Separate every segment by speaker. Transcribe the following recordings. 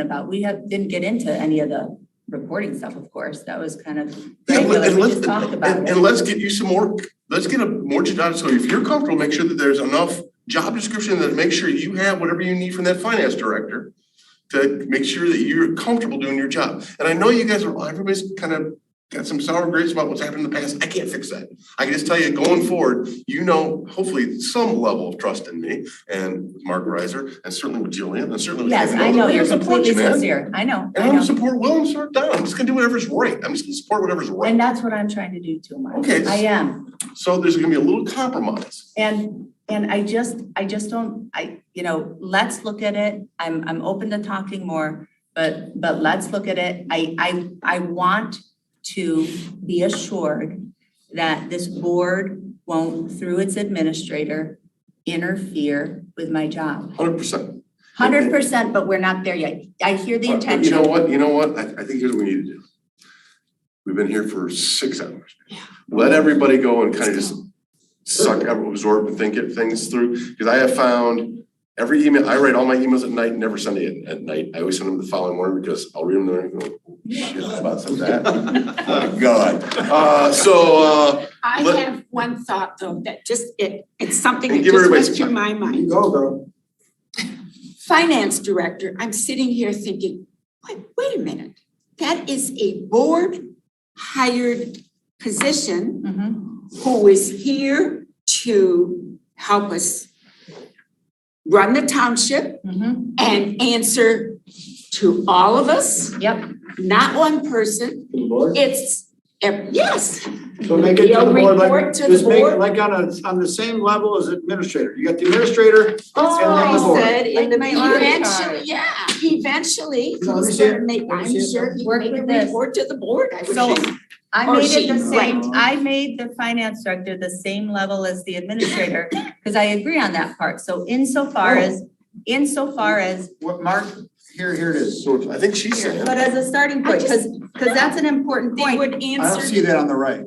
Speaker 1: about. We have, didn't get into any of the reporting stuff, of course. That was kind of
Speaker 2: Yeah, let-
Speaker 1: regular.
Speaker 2: and
Speaker 1: We
Speaker 2: let's,
Speaker 1: just talked about
Speaker 2: and,
Speaker 1: it.
Speaker 2: and let's get you some more, let's get a more job, so if you're comfortable, make sure that there's enough job description that make sure you have whatever you need from that finance director to make sure that you're comfortable doing your job. And I know you guys are, everybody's kind of got some sour grapes about what's happened in the past. I can't fix that. I can just tell you, going forward, you know, hopefully some level of trust in me and with Mark Reiser and certainly with Jillian and certainly with.
Speaker 1: Yes,
Speaker 2: Kevin.
Speaker 1: I know.
Speaker 2: Those are
Speaker 1: You're
Speaker 2: some folks,
Speaker 1: completely
Speaker 2: man.
Speaker 1: sincere. I know,
Speaker 2: And
Speaker 1: I
Speaker 2: I'm gonna
Speaker 1: know.
Speaker 2: support Will and support Don. I'm just gonna do whatever's right. I'm just gonna support whatever's right.
Speaker 1: And that's what I'm trying to do too, Mark.
Speaker 2: Okay.
Speaker 1: I am.
Speaker 2: So there's gonna be a little compromise.
Speaker 1: And, and I just, I just don't, I, you know, let's look at it. I'm, I'm open to talking more, but, but let's look at it. I, I, I want to be assured that this board won't, through its administrator, interfere with my job.
Speaker 2: Hundred percent.
Speaker 1: Hundred percent, but we're not there yet. I hear the
Speaker 2: Uh, You know
Speaker 1: intention.
Speaker 2: what, you know what, I, I think here's what we need to do. We've been here for six hours. Let everybody go and kind of just suck, up, absorb and think it, things through, because I have found every email, I write all my emails at night, never send it at night. I always send them the following morning because I'll read them there and go, "Oh, shit, I about some of that. Oh, God. Uh, so, uh,
Speaker 3: I
Speaker 2: Let-
Speaker 3: have one thought though, that just, it, it's something
Speaker 2: And
Speaker 3: that
Speaker 2: give
Speaker 3: just
Speaker 2: everybody
Speaker 3: went
Speaker 2: some
Speaker 3: through my mind.
Speaker 2: go, girl.
Speaker 3: Finance director, I'm sitting here thinking, wait, wait a minute. That is a board hired position
Speaker 1: Mhm.
Speaker 3: who is here to help us run the township
Speaker 1: Mhm.
Speaker 3: and answer to all of us,
Speaker 1: Yep,
Speaker 3: not one person.
Speaker 4: to the board?
Speaker 3: It's, ev- yes,
Speaker 4: So make it to
Speaker 3: You'll
Speaker 4: the board,
Speaker 3: report
Speaker 4: like,
Speaker 3: to the
Speaker 4: just make it
Speaker 3: board?
Speaker 4: like on a, on the same level as administrator, you got the administrator,
Speaker 3: I
Speaker 4: Oh.
Speaker 3: said in the
Speaker 1: Like my last
Speaker 3: eventually,
Speaker 1: card.
Speaker 3: yeah, eventually, he's
Speaker 4: No, let me see it.
Speaker 3: gonna make,
Speaker 4: Let me
Speaker 3: I'm
Speaker 4: see it.
Speaker 3: sure he'll
Speaker 1: Work
Speaker 3: make a
Speaker 1: with this.
Speaker 3: report to the board, I would
Speaker 1: So-
Speaker 3: think.
Speaker 1: I
Speaker 3: Or
Speaker 1: made it the
Speaker 3: Oh, she,
Speaker 1: same,
Speaker 4: right.
Speaker 1: I made the finance director the same level as the administrator, because I agree on that part, so insofar
Speaker 3: Oh.
Speaker 1: as, insofar as,
Speaker 4: what, Mark, here, here it is.
Speaker 2: So I think she's saying.
Speaker 1: but as a starting point, because, because that's an important
Speaker 3: They
Speaker 1: point.
Speaker 3: would
Speaker 4: I don't see
Speaker 3: answer,
Speaker 4: that on the right.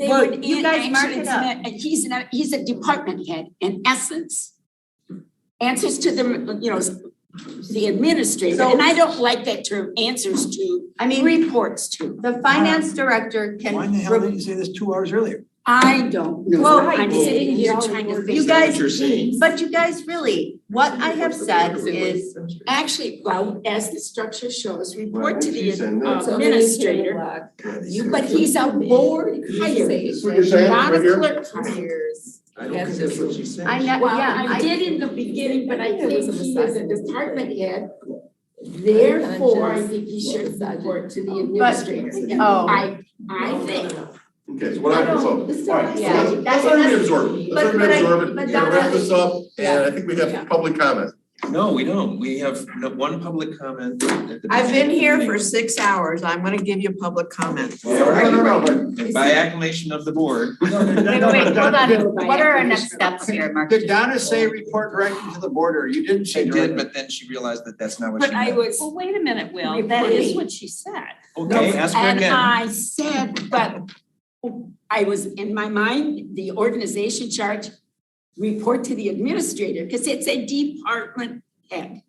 Speaker 3: they
Speaker 1: Well,
Speaker 3: would,
Speaker 1: you
Speaker 3: an-
Speaker 1: guys mark
Speaker 3: actually,
Speaker 1: it
Speaker 3: it's
Speaker 1: up.
Speaker 3: not- and he's not, he's a department head, in essence. Answers to the, you know, the administrator,
Speaker 1: So-
Speaker 3: and I don't like that term, answers to,
Speaker 1: I mean,
Speaker 3: reports to.
Speaker 1: the finance director can. re-
Speaker 4: you say this two hours earlier?
Speaker 3: I don't, know.
Speaker 1: Well,
Speaker 3: I'm sitting here trying to
Speaker 1: You
Speaker 3: figure,
Speaker 1: guys, but you guys really, what I have said is,
Speaker 3: actually, well, as the structure shows, report to the
Speaker 2: She's saying
Speaker 3: uh,
Speaker 2: that's-
Speaker 3: administrator. You, but he's a board hired,
Speaker 2: That's what you're saying,
Speaker 3: not
Speaker 2: right
Speaker 3: a
Speaker 2: here?
Speaker 3: clerk hired.
Speaker 5: I don't think that's what she said.
Speaker 1: I, ne- yeah,
Speaker 3: Well, I
Speaker 1: I,
Speaker 3: did in the beginning, but I
Speaker 5: There
Speaker 3: think
Speaker 5: was a
Speaker 3: he is a
Speaker 5: misogyny.
Speaker 3: department head. Therefore, I think he should
Speaker 5: Misogyny.
Speaker 3: report to the administrator.
Speaker 1: oh.
Speaker 3: I, I think.
Speaker 2: Okay, so what I can solve,
Speaker 5: It's
Speaker 2: all
Speaker 5: not
Speaker 2: right,
Speaker 5: my
Speaker 1: Yeah.
Speaker 2: so let's
Speaker 5: side.
Speaker 1: That's-
Speaker 2: let everybody absorb it,
Speaker 1: but-
Speaker 2: let's
Speaker 1: but I-
Speaker 2: everybody absorb it,
Speaker 1: but that-
Speaker 2: we're gonna wrap this up, and
Speaker 1: Yeah.
Speaker 2: I think we
Speaker 3: Yeah.
Speaker 2: have public comment.
Speaker 5: No, we don't. We have no- one public comment. at the
Speaker 6: I've been here for
Speaker 5: beginning.
Speaker 6: six hours. I'm gonna give you public comment.
Speaker 2: No, no, no, but-
Speaker 5: And By acclamation of the board.
Speaker 1: wait, wait, hold on, what are our next steps here, Mark?
Speaker 4: Did Donna say report directly to the board, or you didn't
Speaker 5: She
Speaker 4: say
Speaker 5: did,
Speaker 4: directly?
Speaker 5: but then she realized that that's not what she meant.
Speaker 3: was.
Speaker 7: Well, wait a minute, Will, that is
Speaker 3: Reporting.
Speaker 7: what she said.
Speaker 5: Okay, ask her
Speaker 3: And
Speaker 5: again.
Speaker 3: I said, but I was, in my mind, the organization chart, report to the administrator, because it's a department head.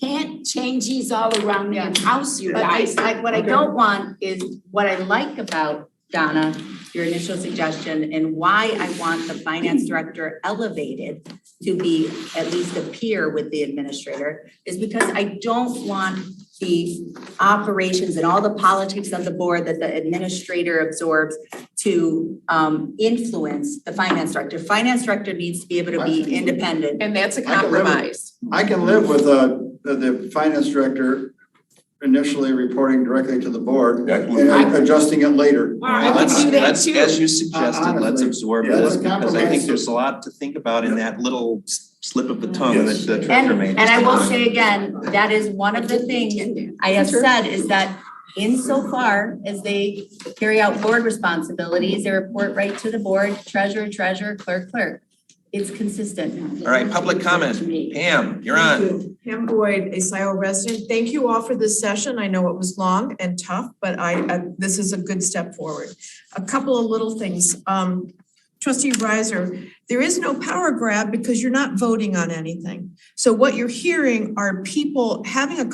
Speaker 3: Can't change these all around the house, you
Speaker 1: But I,
Speaker 3: guys.
Speaker 1: I, what I don't want is, what I like about Donna, your initial suggestion, and why I want the finance director elevated to be at least a peer with the administrator, is because I don't want the operations and all the politics of the board that the administrator absorbs to, um, influence the finance director. Finance director needs to be able to be independent.
Speaker 6: And that's a
Speaker 4: I can remember.
Speaker 6: compromise.
Speaker 4: I can live with, uh, the, the finance director initially reporting directly to the board
Speaker 2: Yeah, I can live
Speaker 4: and
Speaker 2: with that.
Speaker 4: adjusting it later.
Speaker 3: All right,
Speaker 4: I can
Speaker 5: Let's,
Speaker 4: do
Speaker 3: that
Speaker 5: let's,
Speaker 3: too.
Speaker 5: as you suggested, let's
Speaker 4: Honestly,
Speaker 5: absorb
Speaker 2: yeah,
Speaker 5: this
Speaker 4: let's
Speaker 5: because I
Speaker 4: compromise
Speaker 5: think there's a lot to think about in that little s- slip of the tongue that
Speaker 2: Yes.
Speaker 5: the treasurer
Speaker 1: And,
Speaker 5: made.
Speaker 1: and I will say again, that is one of the things I have said is that insofar as they carry out board responsibilities, they report right to the board, treasurer, treasurer, clerk, clerk. It's consistent.
Speaker 5: All right, public comment. Pam, you're
Speaker 8: Thank
Speaker 5: on.
Speaker 8: you. Pam Boyd, a SIO resident. Thank you all for this session. I know it was long and tough, but I, I- this is a good step forward. A couple of little things. Um, trustee Riser, there is no power grab because you're not voting on anything. So what you're hearing are people having a